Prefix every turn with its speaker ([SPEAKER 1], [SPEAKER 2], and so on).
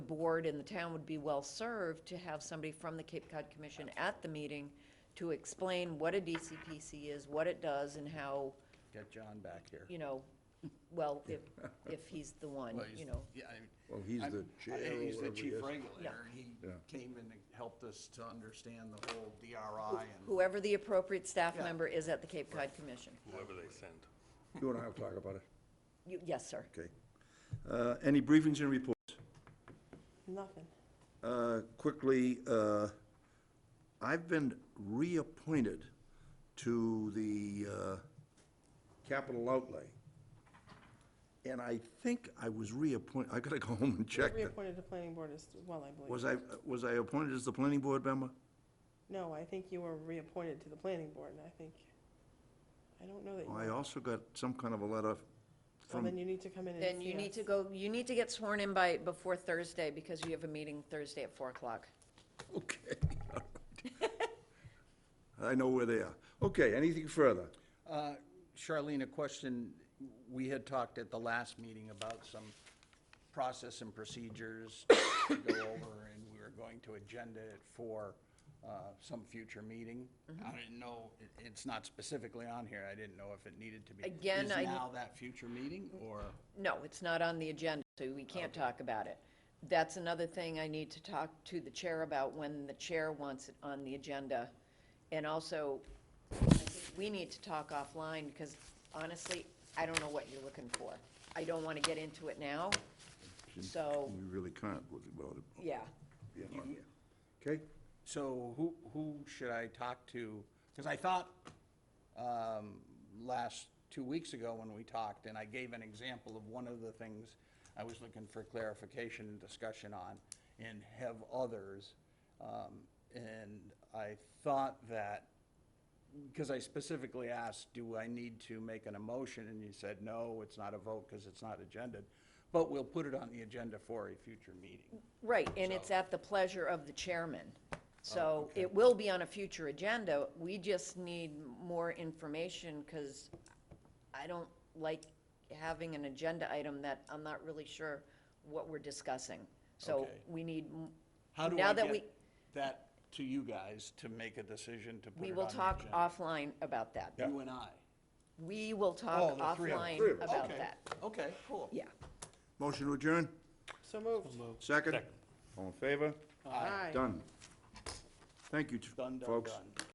[SPEAKER 1] board and the town would be well-served to have somebody from the Cape Cod Commission at the meeting to explain what a DCPC is, what it does, and how,
[SPEAKER 2] Get John back here.
[SPEAKER 1] you know, well, if, if he's the one,
[SPEAKER 3] Well, he's-
[SPEAKER 1] you know.
[SPEAKER 3] Yeah, I mean.
[SPEAKER 4] Well, he's
[SPEAKER 3] I'm-
[SPEAKER 4] the chair
[SPEAKER 3] I-
[SPEAKER 4] or
[SPEAKER 3] He's the
[SPEAKER 4] whatever he
[SPEAKER 3] chief
[SPEAKER 4] is.
[SPEAKER 3] regulator, he
[SPEAKER 4] Yeah.
[SPEAKER 3] came and helped us to understand the whole DRI and,
[SPEAKER 1] Whoever the appropriate staff
[SPEAKER 3] Yeah.
[SPEAKER 1] member is at the Cape Cod Commission.
[SPEAKER 5] whoever they send.
[SPEAKER 4] You and I will talk about it,
[SPEAKER 1] You, yes, sir.
[SPEAKER 4] okay. Uh, Any briefings and reports?
[SPEAKER 6] Nothing.
[SPEAKER 4] Uh, Quickly, uh, I've been reappointed to the uh, capital outlay. And I think I was reappointed, I gotta go home and check. that.
[SPEAKER 6] Reappointed to planning board as well, I believe.
[SPEAKER 4] Was I, was I appointed as the planning board member?
[SPEAKER 6] No, I think you were reappointed to the planning board, and I think, I don't know that you.
[SPEAKER 4] Oh, I also got some kind of a letter
[SPEAKER 6] Well,
[SPEAKER 4] from,
[SPEAKER 6] then you need to come in and see us.
[SPEAKER 1] Then you need to go, you need to get sworn in by, before Thursday, because you have a meeting Thursday at four o'clock.
[SPEAKER 4] okay. all right. I know where they are. Okay, anything further?
[SPEAKER 3] Uh, Charlene, a question, we had talked at the last meeting about some process and procedures to go over, and we were going to agenda it for uh, some future meeting. I didn't know, it- it's not specifically on here, I didn't know if it needed to be.
[SPEAKER 1] Again, I-
[SPEAKER 3] Is now that future meeting, or?
[SPEAKER 1] No, it's not on the agenda, so we can't talk about it. That's another thing I need to talk to the chair about when the chair wants it on the agenda. And also, I think we need to talk offline, because honestly, I don't know what you're looking for. I don't want to get into it now, so,
[SPEAKER 4] We really can't look about it,
[SPEAKER 1] yeah.
[SPEAKER 4] being on here. Okay?
[SPEAKER 3] So who, who should I talk to? Because I thought, um, last, two weeks ago when we talked, and I gave an example of one of the things I was looking for clarification and discussion on, and have others. Um, and I thought that, because I specifically asked, do I need to make an emotion? And you said, no, it's not a vote because it's not agendaed, but we'll put it on the agenda for a future meeting.
[SPEAKER 1] Right, and it's at the pleasure of the chairman.
[SPEAKER 3] Oh,
[SPEAKER 1] So it will be on a future agenda. We just need more information because I don't like having an agenda item that I'm not really sure what we're discussing. So
[SPEAKER 3] Okay.
[SPEAKER 1] we need, m-
[SPEAKER 3] How do
[SPEAKER 1] now
[SPEAKER 3] I
[SPEAKER 1] that we,
[SPEAKER 3] get that to you guys to make a decision to put
[SPEAKER 1] we
[SPEAKER 3] it
[SPEAKER 1] will
[SPEAKER 3] on the
[SPEAKER 1] talk
[SPEAKER 3] agenda?
[SPEAKER 1] offline about that.
[SPEAKER 3] You and I.
[SPEAKER 1] We will
[SPEAKER 3] Oh,
[SPEAKER 1] talk
[SPEAKER 3] the three of us.
[SPEAKER 1] offline
[SPEAKER 4] Three of us.
[SPEAKER 1] about
[SPEAKER 3] Okay.
[SPEAKER 1] that.
[SPEAKER 3] Okay, cool.
[SPEAKER 1] Yeah.
[SPEAKER 4] Motion to adjourn?
[SPEAKER 6] So moved.
[SPEAKER 4] Second? All in favor?
[SPEAKER 6] Aye.
[SPEAKER 4] Done. Thank you, t-
[SPEAKER 3] Done, done,
[SPEAKER 4] folks.
[SPEAKER 3] done.